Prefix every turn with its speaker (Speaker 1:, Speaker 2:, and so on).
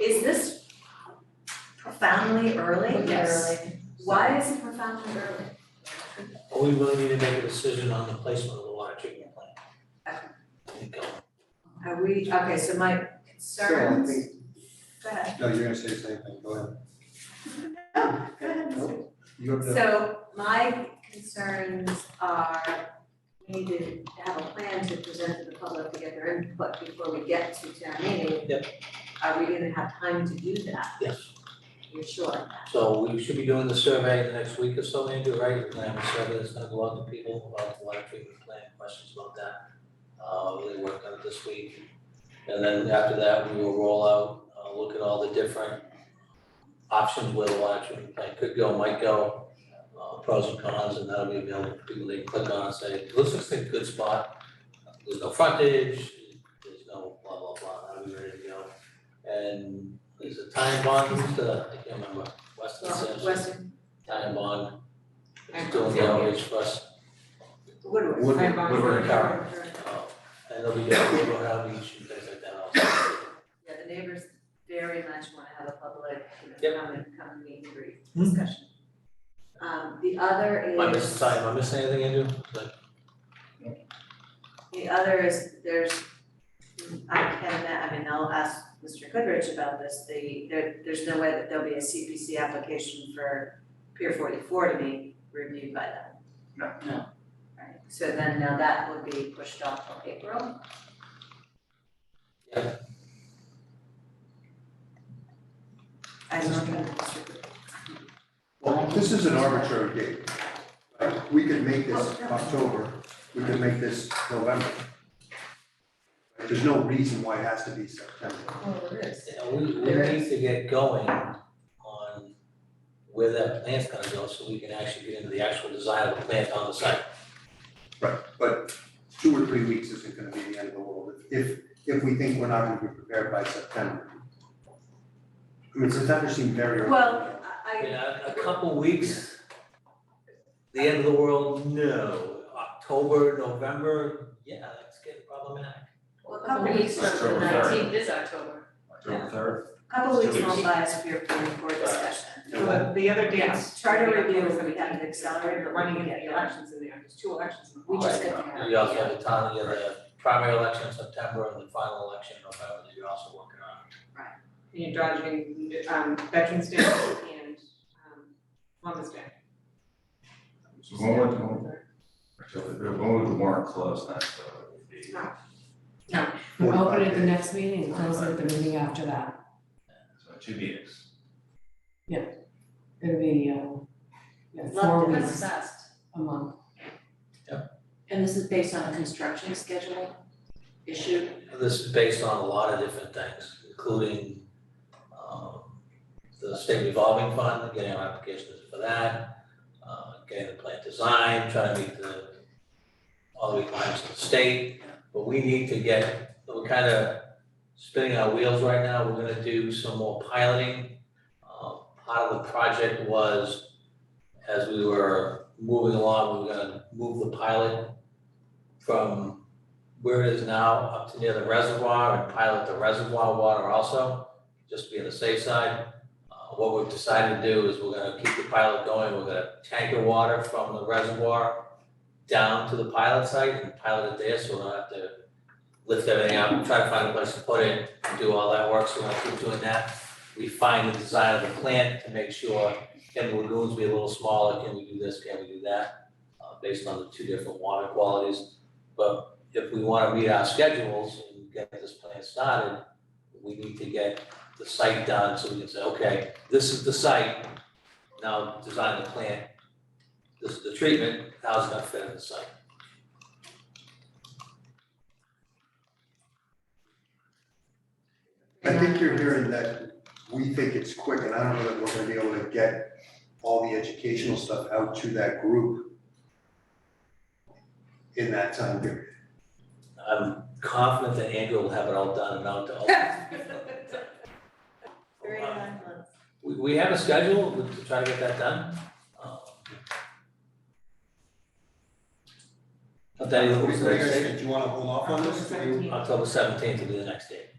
Speaker 1: Is this profoundly early? Why is it profoundly early?
Speaker 2: Are we really need to make a decision on the placement of the water treatment plant? And go.
Speaker 1: Are we, okay, so my concerns,
Speaker 3: So I think-
Speaker 1: go ahead,
Speaker 3: No, you're gonna say the same thing, go ahead.
Speaker 1: go ahead. Mr.
Speaker 3: You have the,
Speaker 1: So my concerns are, we need to have a plan to present to the public to get their input before we get to town meeting.
Speaker 2: Yep.
Speaker 1: Are we gonna have time to do that?
Speaker 2: Yes,
Speaker 1: You're sure of that?
Speaker 2: so we should be doing the survey in the next week or so, Andrew, right? We're gonna have a survey that's gonna go out to people about the water treatment plant, questions about that. Uh, really work on it this week. And then after that, we will roll out, uh, look at all the different options where the water treatment plant could go, might go, uh, pros and cons, and that'll be available for people. They can click on and say, this looks like a good spot. There's no frontage, there's no blah, blah, blah, that'll be ready to go. And there's a time bond, uh, I can't remember, Weston
Speaker 1: Well,
Speaker 2: says,
Speaker 1: Western,
Speaker 2: time bond.
Speaker 1: Time
Speaker 2: It's doing the outreach for us,
Speaker 1: Woodward.
Speaker 3: Woodward,
Speaker 2: Woodward and Carver.
Speaker 1: Woodward.
Speaker 2: uh, and they'll be doing, we'll have each, and things like that also.
Speaker 1: Yeah, the neighbors very much wanna have a public, you know,
Speaker 2: Yep.
Speaker 1: come and come and meet and greet
Speaker 2: Hmm.
Speaker 1: discussion. Um, the other is.
Speaker 2: Am I missing, sorry, am I missing anything, Andrew? Like,
Speaker 1: The other is, there's, I can, I mean, I'll ask Mr. Goodrich about this, the, there, there's no way that there'll be a CPC application for Pier forty-four to be reviewed by them.
Speaker 3: No.
Speaker 1: No. Right, so then now that would be pushed off till April.
Speaker 2: Yep.
Speaker 1: I don't know, Mr. Goodrich.
Speaker 3: well, this is an arbitrary date. Right? We could make this
Speaker 1: Oh,
Speaker 3: October, we could make this November. There's no reason why it has to be September.
Speaker 1: Well, it is.
Speaker 2: Yeah, we, we
Speaker 1: There
Speaker 2: need to get going on where that plant's gonna go, so we can actually get into the actual design of the plant on the site.
Speaker 3: Right, but two or three weeks isn't gonna be the end of the world if, if we think we're not gonna be prepared by September. I mean, September seemed very early.
Speaker 1: Well, I, I-
Speaker 2: In a, a couple weeks, the end of the world, no, October, November, yeah, that's getting problematic.
Speaker 1: well, a
Speaker 4: Couple
Speaker 1: couple weeks,
Speaker 4: weeks from the
Speaker 5: October third.
Speaker 4: nineteenth is October.
Speaker 5: October third,
Speaker 1: a couple weeks
Speaker 5: Two weeks.
Speaker 1: won't buy us Pier forty-four discussion.
Speaker 3: Yeah.
Speaker 4: The, the other dates.
Speaker 1: Charter
Speaker 4: Yeah,
Speaker 1: review,
Speaker 4: October's
Speaker 1: we
Speaker 4: gonna
Speaker 1: have
Speaker 4: be
Speaker 1: to accelerate,
Speaker 4: We're
Speaker 1: but
Speaker 4: running
Speaker 1: we
Speaker 4: into
Speaker 1: get
Speaker 4: the
Speaker 1: there.
Speaker 4: elections in there, there's two elections. in the
Speaker 1: We just
Speaker 4: fall.
Speaker 1: couldn't have.
Speaker 2: You also have the town, you have the primary election in September and the final election in November that you're also working on.
Speaker 4: And You're dodging, um, Veterans Day and, um, Columbus Day.
Speaker 5: So when would- October, when would the warrant close then, so it would be.
Speaker 6: Open at the
Speaker 3: 45 days.
Speaker 6: next meeting and close it at the meeting after that.
Speaker 5: So two meetings.
Speaker 6: It'll be, um, yeah, four
Speaker 1: Love to
Speaker 6: weeks
Speaker 1: assessed.
Speaker 6: a month.
Speaker 7: And this is based on a construction scheduling issue?
Speaker 2: This is based on a lot of different things, including um the state revolving fund, getting our applications for that, uh getting the plant design, trying to meet the all the requirements of the state, but we need to get, we're kind of spinning our wheels right now, we're gonna do some more piloting. Uh, Part of the project was, as we were moving along, we were gonna move the pilot from where it is now up to near the reservoir and pilot the reservoir water also, just to be on the safe side. Uh, What we've decided to do is we're gonna keep the pilot going, we're gonna tanker water from the reservoir down to the pilot site and pilot it there, so we don't have to lift everything up, try to find a place to put it, do all that work, so we're gonna keep doing that. Refine the design of the plant to make sure, can the lagoons be a little smaller, can we do this, can we do that? uh, Based on the two different water qualities if we wanna meet our schedules and get this plan started, we need to get the site done, so we can say, okay, this is the site, now design the plant. This is the treatment, how's it gonna fit in the site?
Speaker 3: I think you're hearing that we think it's quick, and I don't know that we're gonna be able to get all the educational stuff out to that group in that time period.
Speaker 2: I'm confident that Andrew will have it all done and out to all.
Speaker 1: Three to nine months.
Speaker 2: We, we have a schedule to try to get that done. Um, But that is,
Speaker 3: What do you guys think? Do you wanna hold off on this?
Speaker 4: October 17th.
Speaker 2: uh, October seventeenth will be the next date.